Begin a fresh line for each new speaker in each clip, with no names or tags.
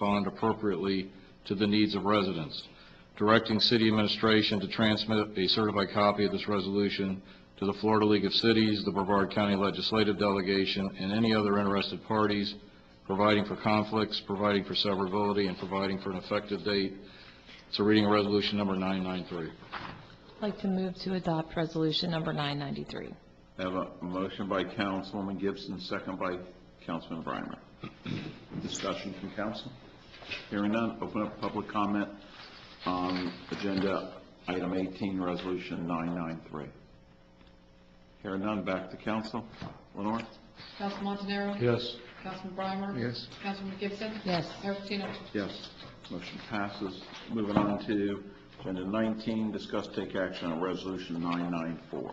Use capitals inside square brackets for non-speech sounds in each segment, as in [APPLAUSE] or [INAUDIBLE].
bond appropriately to the needs of residents, directing city administration to transmit a certified copy of this resolution to the Florida League of Cities, the Brevard County Legislative Delegation, and any other interested parties, providing for conflicts, providing for severability, and providing for an effective date. So reading of resolution number 993.
I'd like to move to adopt Resolution Number 993.
I Have a motion by Councilwoman Gibson, second by Councilman Breimer. Discussion from council? Hearing none, open up public comment on agenda item 18, resolution 993. Hearing none, back to council. Lenore?
Council Montanaro?
Yes.
Councilman Breimer?
Yes.
Councilman Gibson?
Yes.
Mayor Patino?
Yes. Motion passes. Moving on to agenda 19, discuss take action on resolution 994.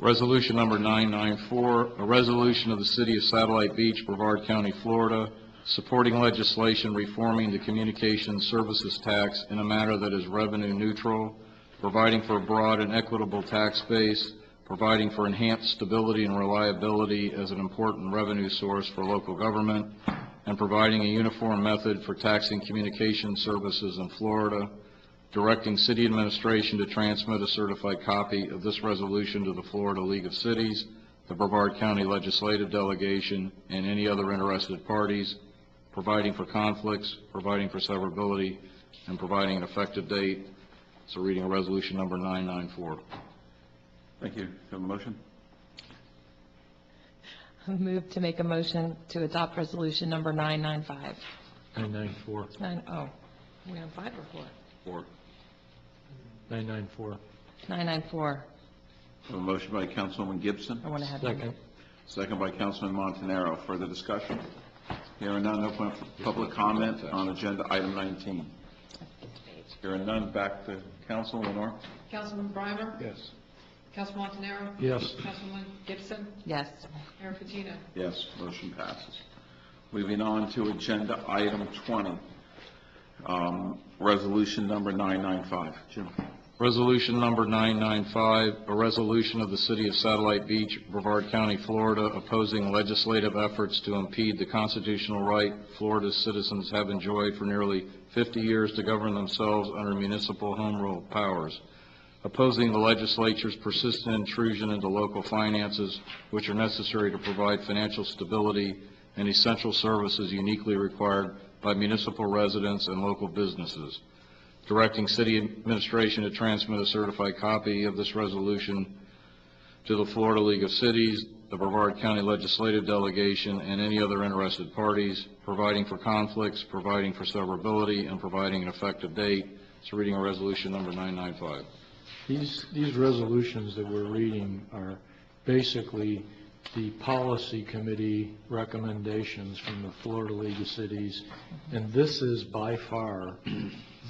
Resolution number 994, a resolution of the City of Satellite Beach, Brevard County, Florida, supporting legislation reforming the communications services tax in a manner that is revenue neutral, providing for a broad and equitable tax base, providing for enhanced stability and reliability as an important revenue source for local government, and providing a uniform method for taxing communication services in Florida, directing city administration to transmit a certified copy of this resolution to the Florida League of Cities, the Brevard County Legislative Delegation, and any other interested parties, providing for conflicts, providing for severability, and providing an effective date. So reading of resolution number 994.
Thank you. Have a motion?
I [LAUGHS] Move to make a motion to adopt Resolution Number 995.
994,
Nine, oh, we on five or four?
994.
994.
Have a motion by Councilwoman Gibson?
I went ahead.
Second.
Second by Councilman Montanaro. Further discussion? Hearing none, open up for public comment on agenda item 19. Hearing none, back to council, Lenore.
Councilman Breimer?
Yes.
Council Montanaro?
Yes.
Councilman Gibson?
Yes.
Mayor Patino?
Yes, motion passes. Moving on to agenda item 20, um, resolution number 995. Jim?
Resolution number 995, a resolution of the City of Satellite Beach, Brevard County, Florida, opposing legislative efforts to impede the constitutional right Florida's citizens have enjoyed for nearly 50 years to govern themselves under municipal home rule powers, opposing the legislature's persistent intrusion into local finances, which are necessary to provide financial stability and essential services uniquely required by municipal residents and local businesses directing city administration to transmit a certified copy of this resolution to the Florida League of Cities, the Brevard County Legislative Delegation, and any other interested parties, providing for conflicts, providing for severability, and providing an effective date. So reading of resolution number 995.
These, these resolutions that we're reading are basically the policy committee recommendations from the Florida League of Cities, and this is by far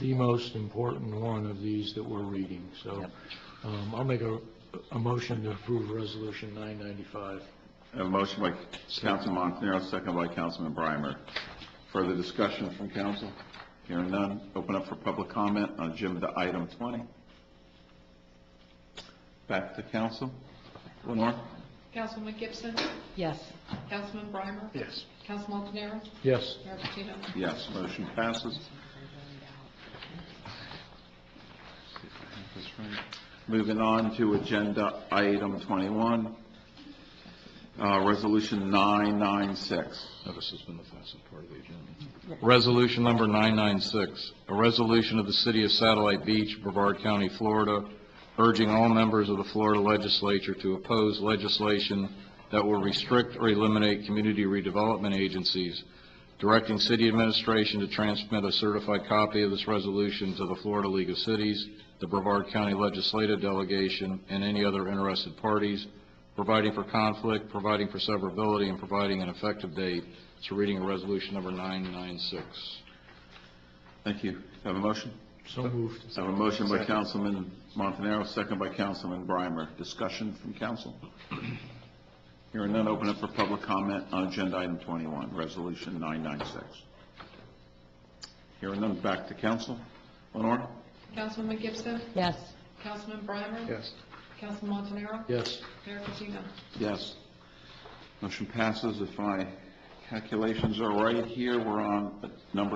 the most important one of these that we're reading. So um, I'll make a, a motion to approve Resolution 995.
I Have a motion by Councilman Montanaro, second by Councilman Breimer. Further discussion from council? Hearing none, open up for public comment on agenda item 20. Back to council. Lenore?
Councilman Gibson?
Yes.
Councilman Breimer?
Yes.
Council Montanaro?
Yes.
Mayor Patino?
Yes, motion passes. Moving on to agenda item 21, uh, resolution 996.
Now, this has been the fastest part of the agenda. Resolution number 996, a resolution of the City of Satellite Beach, Brevard County, Florida, urging all members of the Florida Legislature to oppose legislation that will restrict or eliminate community redevelopment agencies, directing city administration to transmit a certified copy of this resolution to the Florida League of Cities, the Brevard County Legislative Delegation, and any other interested parties, providing for conflict, providing for severability, and providing an effective date. So reading of resolution number 996.
Thank you. Have a motion?
So moved.
I Have a motion by Councilman Montanaro, second by Councilman Breimer. Discussion from council? Hearing none, open up for public comment on agenda item 21, resolution 996. Hearing none, back to council. Lenore?
Councilman Gibson?
Yes.
Councilman Breimer? Yes. Councilman Montanaro?
Yes.
Mayor Patino?
Yes. Motion passes. If I calculations are right here. We're on number